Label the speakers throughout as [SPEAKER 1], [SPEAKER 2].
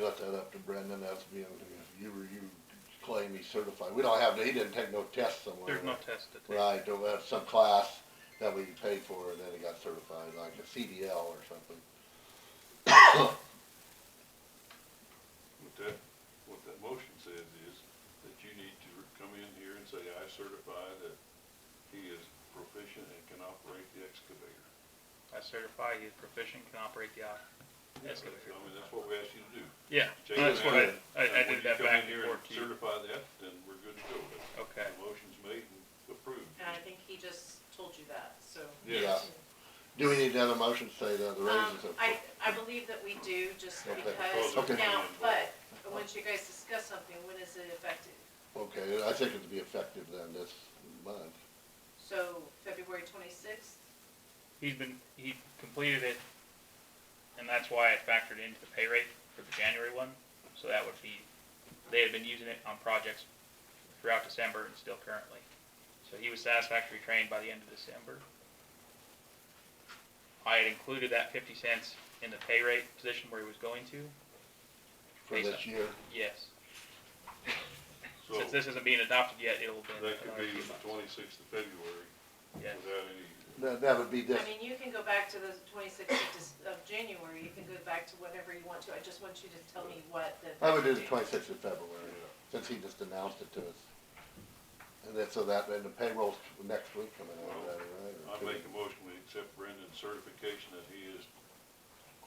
[SPEAKER 1] left that up to Brendan, that's being, you were, you claim he's certified, we don't have, he didn't take no test somewhere.
[SPEAKER 2] There's no test to take.
[SPEAKER 1] Right, there was some class that we paid for, and then he got certified, like a CDL or something.
[SPEAKER 3] What that, what that motion says is that you need to come in here and say, I certify that he is proficient and can operate the excavator.
[SPEAKER 2] I certify he's proficient, can operate the op- excavator.
[SPEAKER 3] I mean, that's what we asked you to do.
[SPEAKER 2] Yeah,
[SPEAKER 3] Check it
[SPEAKER 2] that's what I,
[SPEAKER 3] out.
[SPEAKER 2] I, I
[SPEAKER 3] And when
[SPEAKER 2] did
[SPEAKER 3] you
[SPEAKER 2] that
[SPEAKER 3] come
[SPEAKER 2] back and
[SPEAKER 3] in here
[SPEAKER 2] forth to you.
[SPEAKER 3] Certify that, then we're good to go. That's-
[SPEAKER 2] Okay,
[SPEAKER 3] The motion's made and approved.
[SPEAKER 4] And I think he just told you that, so.
[SPEAKER 1] Yeah. Do we need another motion to say that the
[SPEAKER 4] Um,
[SPEAKER 1] raises are?
[SPEAKER 4] I, I believe that we do, just
[SPEAKER 1] Okay.
[SPEAKER 4] because,
[SPEAKER 1] Okay.
[SPEAKER 4] now, but, once you guys discuss something, when is it effective?
[SPEAKER 1] Okay, I think it'd be effective then this month.
[SPEAKER 4] So, February twenty-sixth?
[SPEAKER 2] he's been, he completed it, and that's why I factored into the pay rate for the January one, so that would be, they had been using it on projects throughout December and still currently. So he was satisfactory trained by the end of December. I had included that fifty cents in the pay rate position where he was going to,
[SPEAKER 1] For
[SPEAKER 2] Lisa.
[SPEAKER 1] this year,
[SPEAKER 2] yes.
[SPEAKER 3] So
[SPEAKER 2] Since this isn't being adopted yet, it'll be.
[SPEAKER 3] that could
[SPEAKER 2] another
[SPEAKER 3] be
[SPEAKER 2] few
[SPEAKER 3] the
[SPEAKER 2] months.
[SPEAKER 3] twenty-sixth of February
[SPEAKER 2] Yes.
[SPEAKER 3] without any,
[SPEAKER 1] that, that would be
[SPEAKER 4] I
[SPEAKER 1] this,
[SPEAKER 4] mean, you can go back to the twenty-sixth of, Dec- of January, you can go back to whenever you want to, I just want you to tell me what the.
[SPEAKER 1] I would do the twenty-sixth of February,
[SPEAKER 3] Yeah.
[SPEAKER 1] since he just announced it to us. And then, so that, and the payroll's next week coming out,
[SPEAKER 3] Well,
[SPEAKER 1] is that all
[SPEAKER 3] I
[SPEAKER 1] right? or two
[SPEAKER 3] make
[SPEAKER 1] weeks?
[SPEAKER 3] a motion, we accept Brendan's certification that he is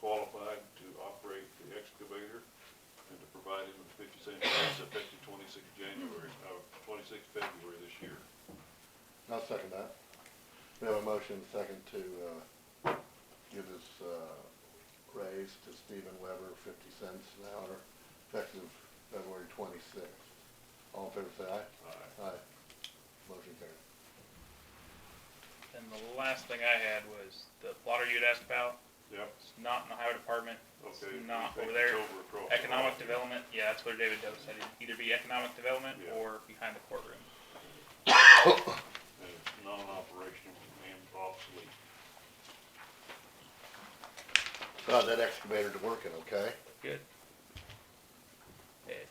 [SPEAKER 3] qualified to operate the excavator and to provide him with fifty cent tax effective twenty-sixth January, uh, twenty-sixth February this year.
[SPEAKER 1] I'll second that. We have a motion second to, uh, give this, uh, raise to Stephen Weber, fifty cents an hour, effective February twenty-sixth. All in favor, say aye.
[SPEAKER 3] Aye.
[SPEAKER 1] Aye. Motion carried.
[SPEAKER 2] And the last thing I had was the plotter you had asked about,
[SPEAKER 3] Yep,
[SPEAKER 2] it's not in the highway department, it's
[SPEAKER 3] okay. we
[SPEAKER 2] not
[SPEAKER 3] think
[SPEAKER 2] over
[SPEAKER 3] it's
[SPEAKER 2] there.
[SPEAKER 3] over across the
[SPEAKER 2] Economic
[SPEAKER 3] line.
[SPEAKER 2] development, yeah, that's what David Doe said, it'd either be economic development
[SPEAKER 3] Yeah.
[SPEAKER 2] or behind the courtroom.
[SPEAKER 3] And it's non-operational and obsolete.
[SPEAKER 1] Got that excavator's working, okay?
[SPEAKER 2] Good. It,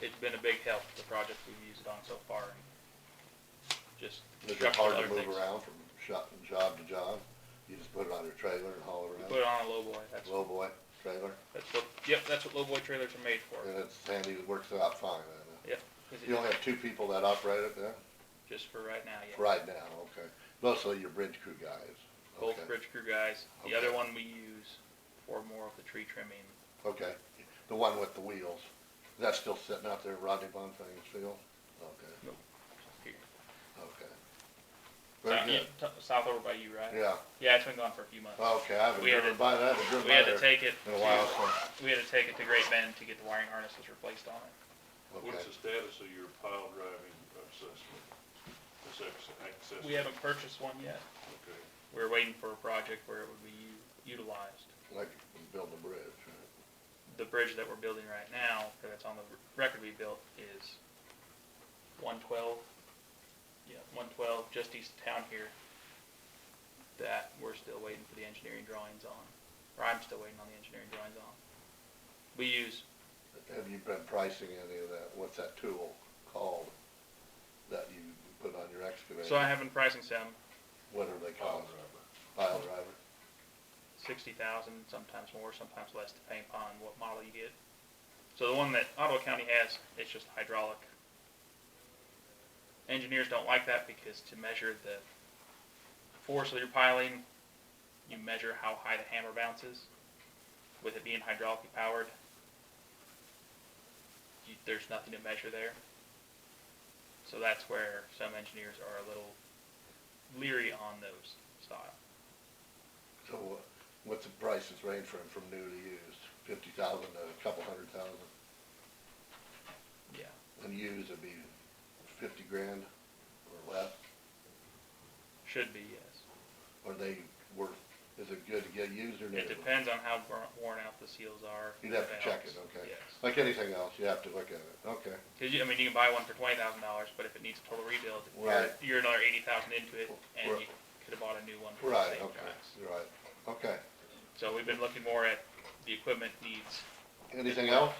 [SPEAKER 2] it's been a big help, the project we've used it on so far, and just
[SPEAKER 1] Is it
[SPEAKER 2] structural
[SPEAKER 1] hard
[SPEAKER 2] other
[SPEAKER 1] to
[SPEAKER 2] things.
[SPEAKER 1] move around from shop, job to job? You just put it on your trailer and haul
[SPEAKER 2] We
[SPEAKER 1] it
[SPEAKER 2] put
[SPEAKER 1] around?
[SPEAKER 2] it on a lowboy, that's,
[SPEAKER 1] Lowboy trailer,
[SPEAKER 2] that's what, yep, that's what lowboy trailers are made for,
[SPEAKER 1] and it's handy, it works out fine, I
[SPEAKER 2] yep. 'cause
[SPEAKER 1] know. You only
[SPEAKER 2] it's
[SPEAKER 1] have two people that operate it then?
[SPEAKER 2] Just for right now, yeah.
[SPEAKER 1] Right now, okay. Mostly your bridge crew guys.
[SPEAKER 2] both
[SPEAKER 1] Okay.
[SPEAKER 2] bridge crew guys. The other
[SPEAKER 1] Okay.
[SPEAKER 2] one we use for more of the tree trimming.
[SPEAKER 1] Okay, the one with the wheels, that's still sitting out there, Rodney Bonfang's field? Okay,
[SPEAKER 2] here.
[SPEAKER 1] okay.
[SPEAKER 2] Uh,
[SPEAKER 1] Very
[SPEAKER 2] yeah,
[SPEAKER 1] good,
[SPEAKER 2] t- South over by you, right?
[SPEAKER 1] yeah,
[SPEAKER 2] Yeah, it's been gone for a few months.
[SPEAKER 1] okay, I haven't
[SPEAKER 2] We had
[SPEAKER 1] driven
[SPEAKER 2] to-
[SPEAKER 1] by that, I haven't driven
[SPEAKER 2] we had
[SPEAKER 1] by
[SPEAKER 2] to
[SPEAKER 1] there
[SPEAKER 2] take it.
[SPEAKER 1] in a while,
[SPEAKER 2] to- we had to take it to Great Bend to get the wiring harnesses replaced on it.
[SPEAKER 1] so, okay.
[SPEAKER 3] What's the status of your pile driving assessment? Assess- Access.
[SPEAKER 2] We haven't purchased one yet.
[SPEAKER 3] Okay.
[SPEAKER 2] We were waiting for a project where it would be u- utilized.
[SPEAKER 1] Like, build a bridge, right?
[SPEAKER 2] The bridge that we're building right now, because it's on the r- record we built, is 112. Yeah, 112, just east of town here. That we're still waiting for the engineering drawings on, or I'm still waiting on the engineering drawings on. We use
[SPEAKER 1] Have you been pricing any of that, what's that tool called that you put on your excavator?
[SPEAKER 2] so I have in pricing some
[SPEAKER 1] What are they
[SPEAKER 3] Pile
[SPEAKER 1] called?
[SPEAKER 3] driver.
[SPEAKER 1] Pile driver?
[SPEAKER 2] sixty thousand, sometimes more, sometimes less, depending upon what model you get. So the one that Ottawa County has, it's just hydraulic. Engineers don't like that because to measure the force of your piling, you measure how high the hammer bounces. With it being hydraulically powered, you, there's nothing to measure there. So that's where some engineers are a little leery on those style.
[SPEAKER 1] So what, what's the prices range from, from new to used? Fifty thousand to a couple hundred thousand?
[SPEAKER 2] Yeah.
[SPEAKER 1] And used would be fifty grand or less?
[SPEAKER 2] Should be, yes.
[SPEAKER 1] Are they worth, is it good to get used or new?
[SPEAKER 2] It depends on how bur- worn out the seals are.
[SPEAKER 1] You'd have to check it,
[SPEAKER 2] valves.
[SPEAKER 1] okay.
[SPEAKER 2] Yes.
[SPEAKER 1] Like anything else, you have to look at it, okay.
[SPEAKER 2] 'Cause you, I mean, you can buy one for twenty thousand dollars, but if it needs a total rebuild, you're,
[SPEAKER 1] Right.
[SPEAKER 2] you're another eighty thousand into it, and
[SPEAKER 1] Right.
[SPEAKER 2] you could've bought a new one for the
[SPEAKER 1] Right,
[SPEAKER 2] same
[SPEAKER 1] okay,
[SPEAKER 2] price.
[SPEAKER 1] you're right, okay.
[SPEAKER 2] So we've been looking more at the equipment needs
[SPEAKER 1] anything else?